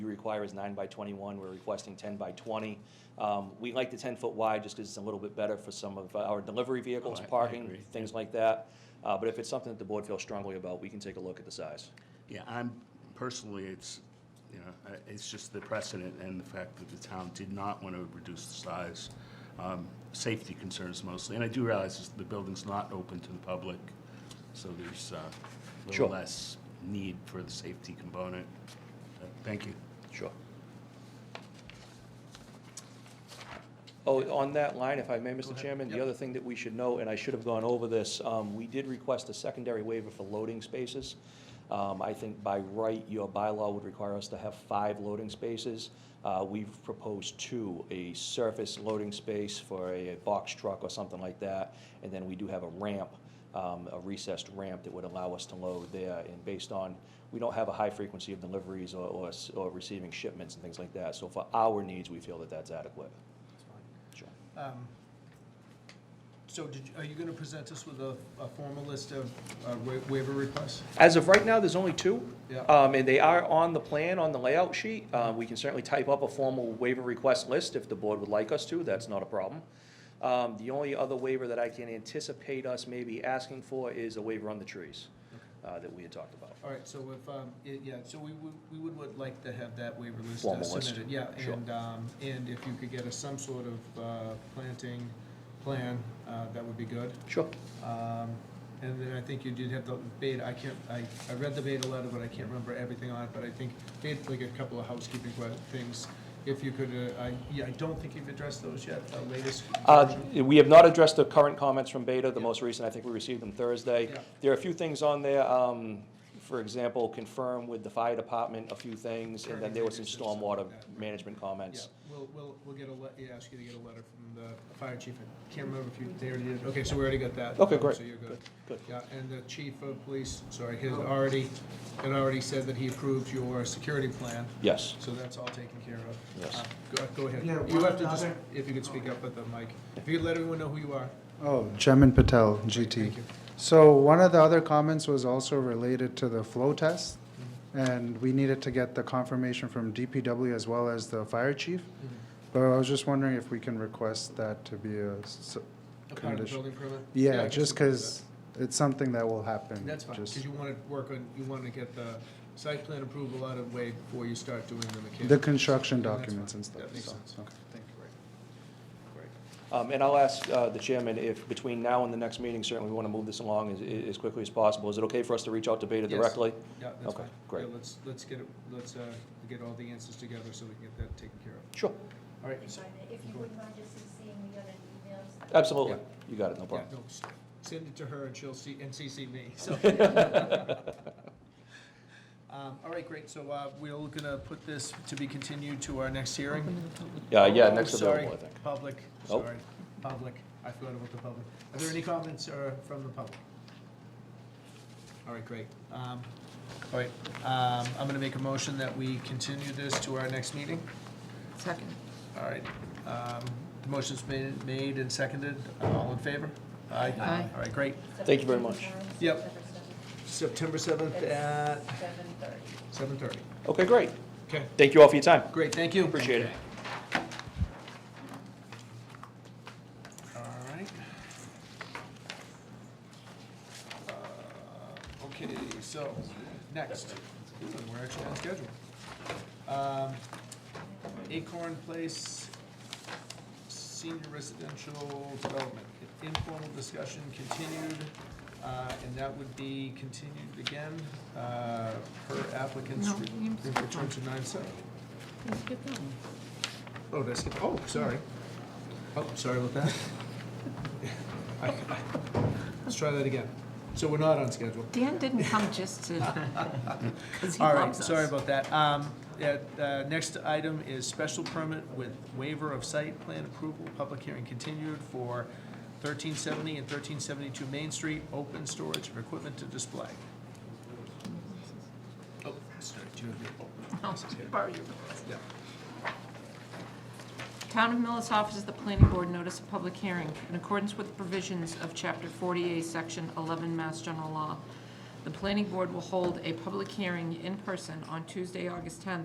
require is nine by twenty-one, we're requesting ten by twenty. Um, we like the ten-foot wide just because it's a little bit better for some of our delivery vehicles, Oh, I- I parking, agree. things like that. Uh, but if it's something that the board feels strongly about, we can take a look at the size. Yeah, I'm, personally, it's, you know, I- it's just the precedent and the fact that the town did not want to reduce the size. Um, Safety concerns mostly, and I do realize this- the building's not open to the public, so there's uh, a Sure. little less need for the safety component. Uh, Thank you. Sure. Oh, on that line, if I may, Mr. Chairman, the other thing that we should know, and I should have gone over this, um, we did request a secondary waiver for loading spaces. Um, I think by right, your bylaw would require us to have five loading spaces. Uh, We've proposed two, a surface loading space for a box truck or something like that, and then we do have a ramp, um, a recessed ramp that would allow us to load there. And based on, we don't have a high frequency of deliveries or- or s- or receiving shipments and things like that, so for our needs, we feel that that's adequate. That's fine. Sure. Um, So did, you- are you gonna present us with a, a formal list of uh, wa- waiver requests? As of right now, there's only two. Yeah. Um, and they are on the plan, on the layout sheet. Uh, we can certainly type up a formal waiver request list if the board would like us to, that's not a problem. Um, the only other waiver that I can anticipate us maybe asking for is a waiver on the trees, uh, that we had talked about. All right, so if, um, i- yeah, so we would, we would would like to have that waiver list uh, Formal list. submitted. Yeah, Sure. and, um, and if you could get us some sort of uh, planting plan, uh, that would be good. Sure. Um, And then I think you did have the beta, I can't, I, I read the beta letter, but I can't remember everything on it, but I think made like a couple of housekeeping que- things. If you could, uh, I, yeah, I don't think you've addressed those yet, the latest. Uh, version. we have not addressed the current comments from Beta, the Yeah. most recent, I think we received them Thursday. Yeah. There are a few things on there, um, for example, confirm with the fire department a few things, and then there was some Turning radius and stormwater stuff like that. management Yeah, comments. we'll, we'll, we'll get a le, yeah, ask you to get a letter from the fire chief. I can't remember if you, they already did, okay, so we already got that. Okay, um, great. So you're good. Good. Yeah, and the chief of police, sorry, had already, had already said that he approved your security plan. Yes. So that's all taken care of. Yes. Uh, Go, go ahead. Yeah, You one have to just, other- if you could speak up at the mic. If you could let everyone know who you are. Oh, Jemin Patel, GT. Thank you. So one of the other comments was also related to the flow test, and we needed to get the confirmation from DPW as well as the fire chief. Mm-hmm. But I was just wondering if we can request that to be a, s- A part of the Condition. building permit? I yeah, can just support because it's something that will happen. that. That's fine, just- because you want to work on, you want to get the site plan approval out of the way before you start doing the mechanical. The construction Yeah, that's documents fine. and stuff. That makes so, sense. okay. Thank you. Um, And I'll ask uh, the chairman if, between now and the next meeting, certainly we want to move this along as- as quickly as possible. Is it okay for us to reach out to Beta Yes. directly? Yeah, that's Okay, fine. great. Yeah, let's, let's get, it- let's uh, get all the answers together so we can get that taken care of. Sure, All right. If you wouldn't mind just seeing me on an email. so- absolutely. Yeah. You got it, no Yeah, problem. no, s- send it to her and she'll see, and CC me, so. Um, All right, great, so uh, we're gonna put this to be continued to our next hearing. Yeah, yeah, Oh, next sorry, available, I think. Public, Nope. sorry, public, I forgot about the public. Are there any comments uh, from the public? All right, great. Um, All right, um, I'm gonna make a motion that we continue this to our next meeting. Second. All right, um, the motion's been made and seconded, all in favor? Aye. Aye. All right, great. Thank you very much. Yep. September 7th at Seven thirty. 7:30. Okay, great. Okay, Thank you all for your time. great, thank you. Appreciate it. All right. Uh, Okay, so, next, Ooh, we're actually on schedule. Um, Acorn Place Senior Residential Development, informal discussion continued, uh, and that would be continued again, uh, per applicant's No, re- you skipped return one. to nine seven. Let's get that one. Oh, did I skip? Oh, sorry. Oh, sorry about that. I- I- Let's try that again. So we're not on schedule. Dan didn't come just to, because he All right, loves us. sorry about that. Um, yeah, uh, Next item is special permit with waiver of site plan approval, public hearing continued for 1370 and 1372 Main Street, open storage of equipment to display. Oh, sorry, do you have your, oh, this is here. Borrow your- Yeah. Town of Millis offers the planning board notice of public hearing in accordance with provisions of Chapter 48, Section 11, Mass General Law. The planning board will hold a public hearing in person on Tuesday, August 10th,